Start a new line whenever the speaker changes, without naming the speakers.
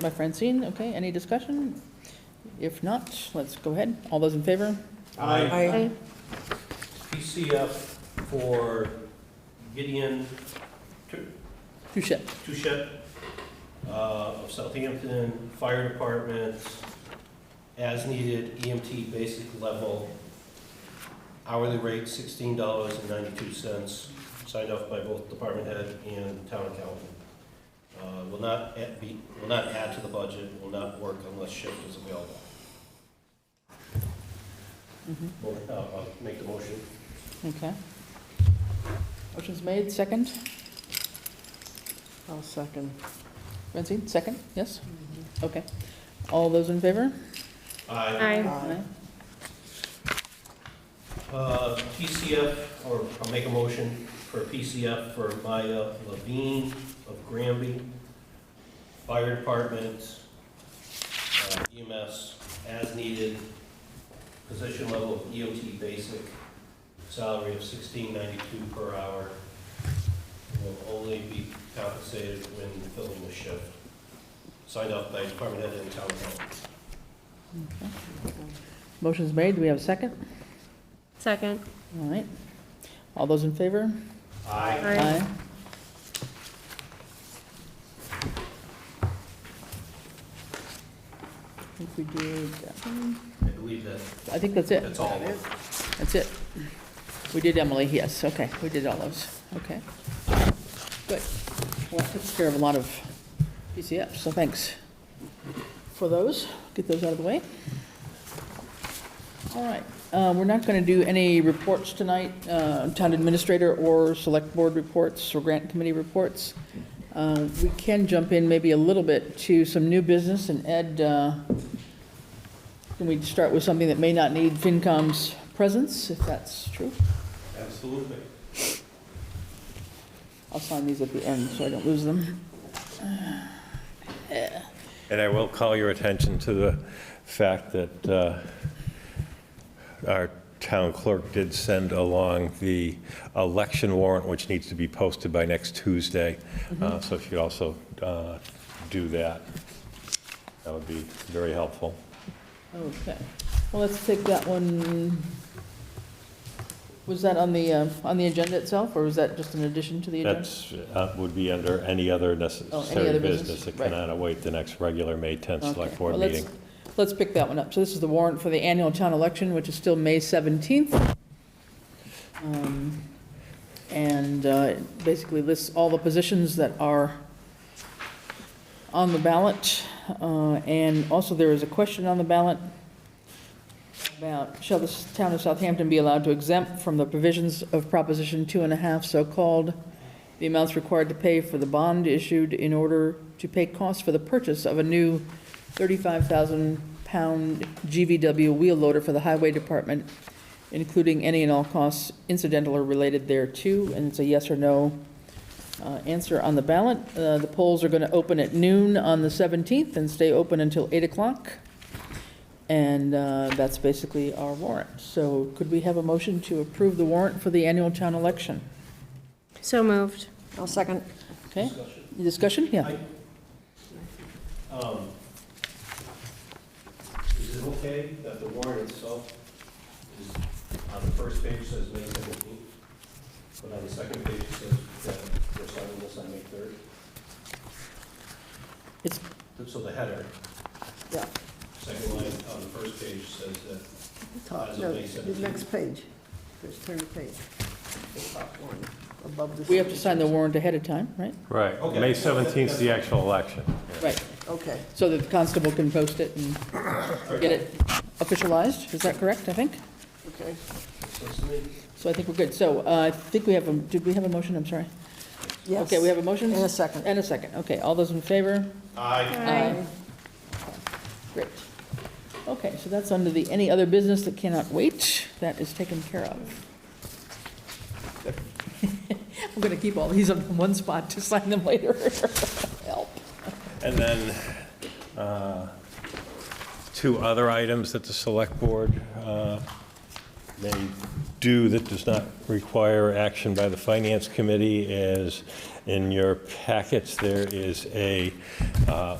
by Francine, okay, any discussion? If not, let's go ahead, all those in favor?
Aye.
PCF for Gideon
Touche.
Touchet uh, of Southampton Fire Department, as needed EMT basic level, hourly rate sixteen dollars and ninety-two cents, signed off by both department head and town accountant. Uh, Will not add- be, will not add to the budget, will not work unless shift is available.
Mhm,
Mo- uh, I'll Make the motion.
Okay. Motion's made, second? I'll second. Francine, second, yes? Okay. All those in favor?
Aye.
Aye.
Aye.
Uh, PCF, or I'll make a motion for PCF for Maya Levine of Granby, Fire Department, uh, EMS, as needed, position level of EOT basic, salary of sixteen ninety-two per hour, will only be compensated when filling the shift. Signed off by Department Head and Town Hall.
Motion's made, do we have a second?
Second.
All right. All those in favor?
Aye.
I think we did,
I believe that,
I think that's it,
that's all.
that's it. We did Emily, yes, okay, we did all those, okay. Good. Well, that takes care of a lot of PCFs, so thanks for those. Get those out of the way. All right, uh, we're not going to do any reports tonight, uh, town administrator or select board reports or grant committee reports. Uh, We can jump in maybe a little bit to some new business, and Ed, uh, can we start with something that may not need FinCom's presence, if that's true?
Absolutely.
I'll sign these at the end so I don't lose them.
And I will call your attention to the fact that uh, our town clerk did send along the election warrant, which needs to be posted by next Tuesday.
Mm-hmm.
Uh, So if you also uh, do that, that would be very helpful.
Okay, well, let's take that one. Was that on the, uh, on the agenda itself, or was that just an addition to the agenda?
That's, uh, would be under any other necessary
Oh, other business,
business. It
right.
cannot await the next regular May 10th
Okay,
Select Board
well,
meeting.
let's- Let's pick that one up. So this is the warrant for the annual town election, which is still May 17th. Um, And uh, it basically lists all the positions that are on the ballot. Uh, And also, there is a question on the ballot about, shall the town of Southampton be allowed to exempt from the provisions of Proposition Two and a Half, so-called, the amounts required to pay for the bond issued in order to pay costs for the purchase of a new 35,000-pound GVW wheel loader for the highway department, including any and all costs incidental or related thereto, and it's a yes or no uh, answer on the ballot. Uh, The polls are going to open at noon on the 17th and stay open until 8 o'clock, and uh, that's basically our warrant. So could we have a motion to approve the warrant for the annual town election?
So moved.
I'll second.
Okay,
Discussion.
discussion? Yeah.
I- um, Is it okay that the warrant itself is, on the first page says May seventeenth, but on the second page it says that we're signing this on May third?
It's-
So the header.
Yeah.
Second line on the first page says that,
Top,
As of
no,
May
the
17th.
next page. Just turn the page. The top one, above the.
We have to sign the warrant ahead of time, right?
Right.
Okay.
May 17th is the actual election.
Right,
Okay.
so that the constable can post it and get it officialized, is that correct, I think?
Okay.
so it's May,
So I think we're good. So uh, I think we have, a did we have a motion? I'm sorry.
Yes.
Okay, we have a motion?
And a second.
And a second. Okay, all those in favor?
aye,
Aye.
Great. Okay, so that's under the any other business that cannot wait. That is taken care of. I'm going to keep all these in one spot to sign them later. Help.
And then uh, two other items that the Select Board uh, may do that does not require action by the Finance Committee is, in your packets, there is a uh,